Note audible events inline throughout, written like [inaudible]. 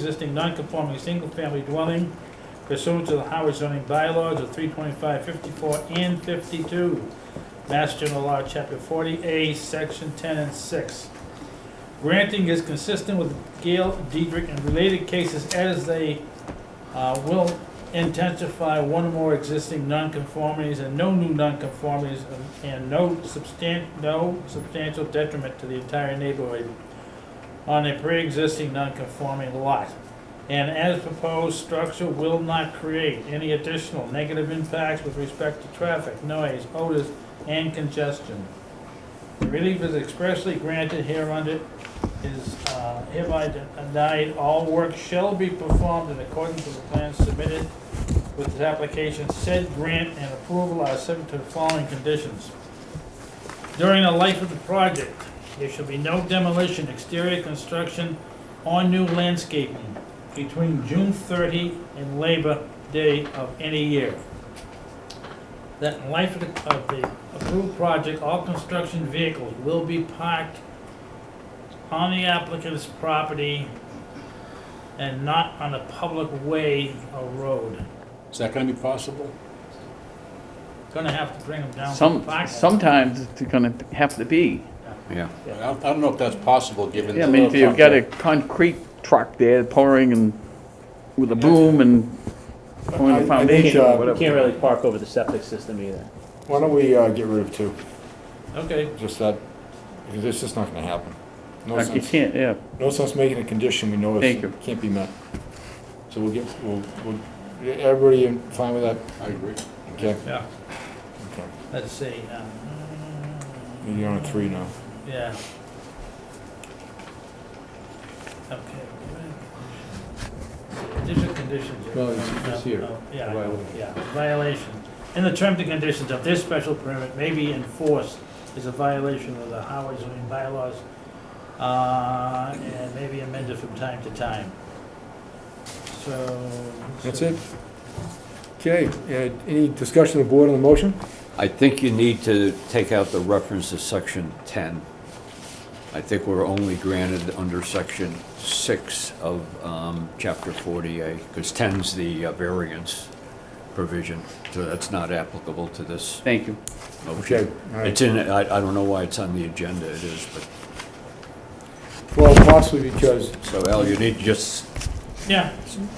existing non-conforming single-family dwelling pursuant to the Howard zoning bylaws of 325, 54, and 52, Mass General Law, Chapter 40A, Section 10 and 6. Granting is consistent with Gale, Diedrich, and related cases as they uh, will intensify one or more existing nonconformities and no new nonconformities and- and no substan, no substantial detriment to the entire neighborhood on a pre-existing non-conforming lot. And as proposed, structure will not create any additional negative impacts with respect to traffic, noise, odors, and congestion. Relief is expressly granted here under is uh, hereby denied. All work shall be performed in accordance with the plans submitted with this application. Said grant and approval are subject to the following conditions. During the life of the project, there shall be no demolition, exterior construction, or new landscaping between June 30 and Labor Day of any year. That in life of the- of the approved project, all construction vehicles will be parked on the applicant's property and not on a public way or road. Is that gonna be possible? Gonna have to bring them down. to Some, parking. sometimes it's gonna have to be. Yeah, I don't, I don't know if that's possible, given. Yeah, I mean, if you've got a concrete truck there pouring and with a boom and pouring I- I a think, foundation uh, or we whatever. Can't really park over the septic system either. Why don't we uh, get rid of two? Okay, Just that, because it's just not gonna happen. No Like, You sense, can't, yeah. no sense making a condition we know Thank it's, you. can't be met. So we'll get, we'll, we'll, everybody fine with that? I agree. Okay, yeah, okay. let's see. um, You're on a three now. Yeah. Okay. Additional conditions. here. No, it's- it's here. Oh, Yeah, Violation. yeah, violation. And the terms and conditions of this special permit may be enforced is a violation of the Howard zoning bylaws, uh, and may be amended from time to time. So. That's it? Okay, uh, any discussion of the board on the motion? I think you need to take out the reference to section 10. I think we're only granted under section 6 of um, chapter 40A, because 10's the uh, variance provision, so that's not applicable to this Thank you. Okay, motion. all right. It's in, I I don't know why it's on the agenda, it is, but, Well, possibly because, so Al, you need to just Yeah,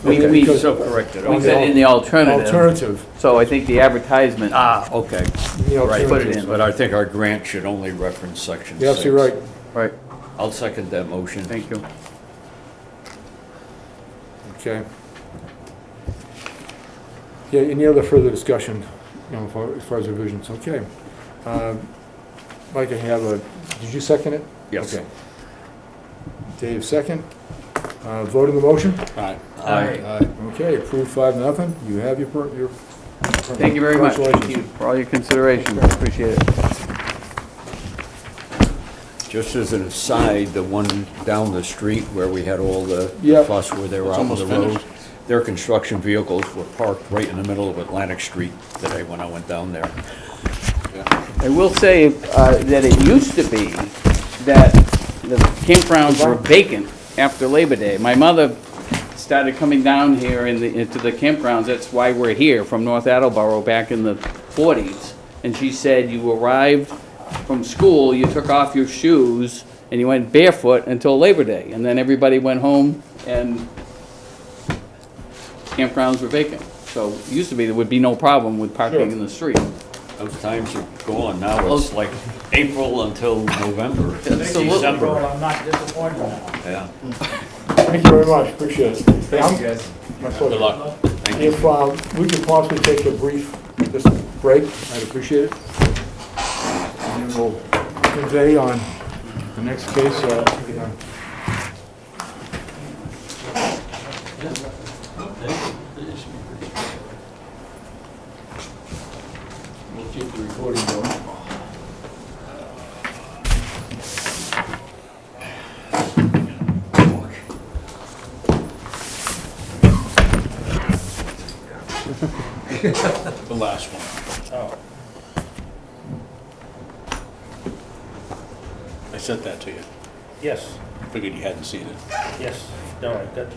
We, Okay, we, because- we so correct it. Oh. okay. said in the alternative, alternative, so I think the advertisement, Ah, okay, the right, put it alternative. in. but I think our grant should only reference section 6. You're absolutely right. right, I'll second that motion. thank you. Okay. Yeah, any other further discussion, you know, for- as far as revisions, okay. Um, Mike, I have a, did you second it? Yes. Okay. Dave, second. Uh, Vote on the motion? Aye. Aye. Aye. Okay, approved five, nothing, you have your, per- your. Thank you very much. Thank you Congratulations. for all your consideration, appreciate it. Just as an aside, the one down the street where we had all the Yeah. fuss where they were It's out on the almost road, finished. their construction vehicles were parked right in the middle of Atlantic Street today when I went down there. I will say uh, that it used to be that the campgrounds were vacant after Labor Day. My mother started coming down here in the, into the campgrounds, that's why we're here, from North Attleboro back in the 40s. And she said, you arrived from school, you took off your shoes, and you went barefoot until Labor Day. And then everybody went home and campgrounds were vacant. So it used to be there would be no problem with parking in the street. Those times are gone now, it's like April until [laughs] November. Absolutely. Well, I'm not disappointed now. Yeah, Thank you very much, appreciate it. Thank you, guys. My Good pleasure. luck. thank you. If um, we could possibly take a brief, just break, I'd appreciate it. And then we'll convey on the next case. uh, you know. We'll keep the recording going. The last one. Oh, I sent that to you. Yes, Figured you hadn't seen it. yes, no, I got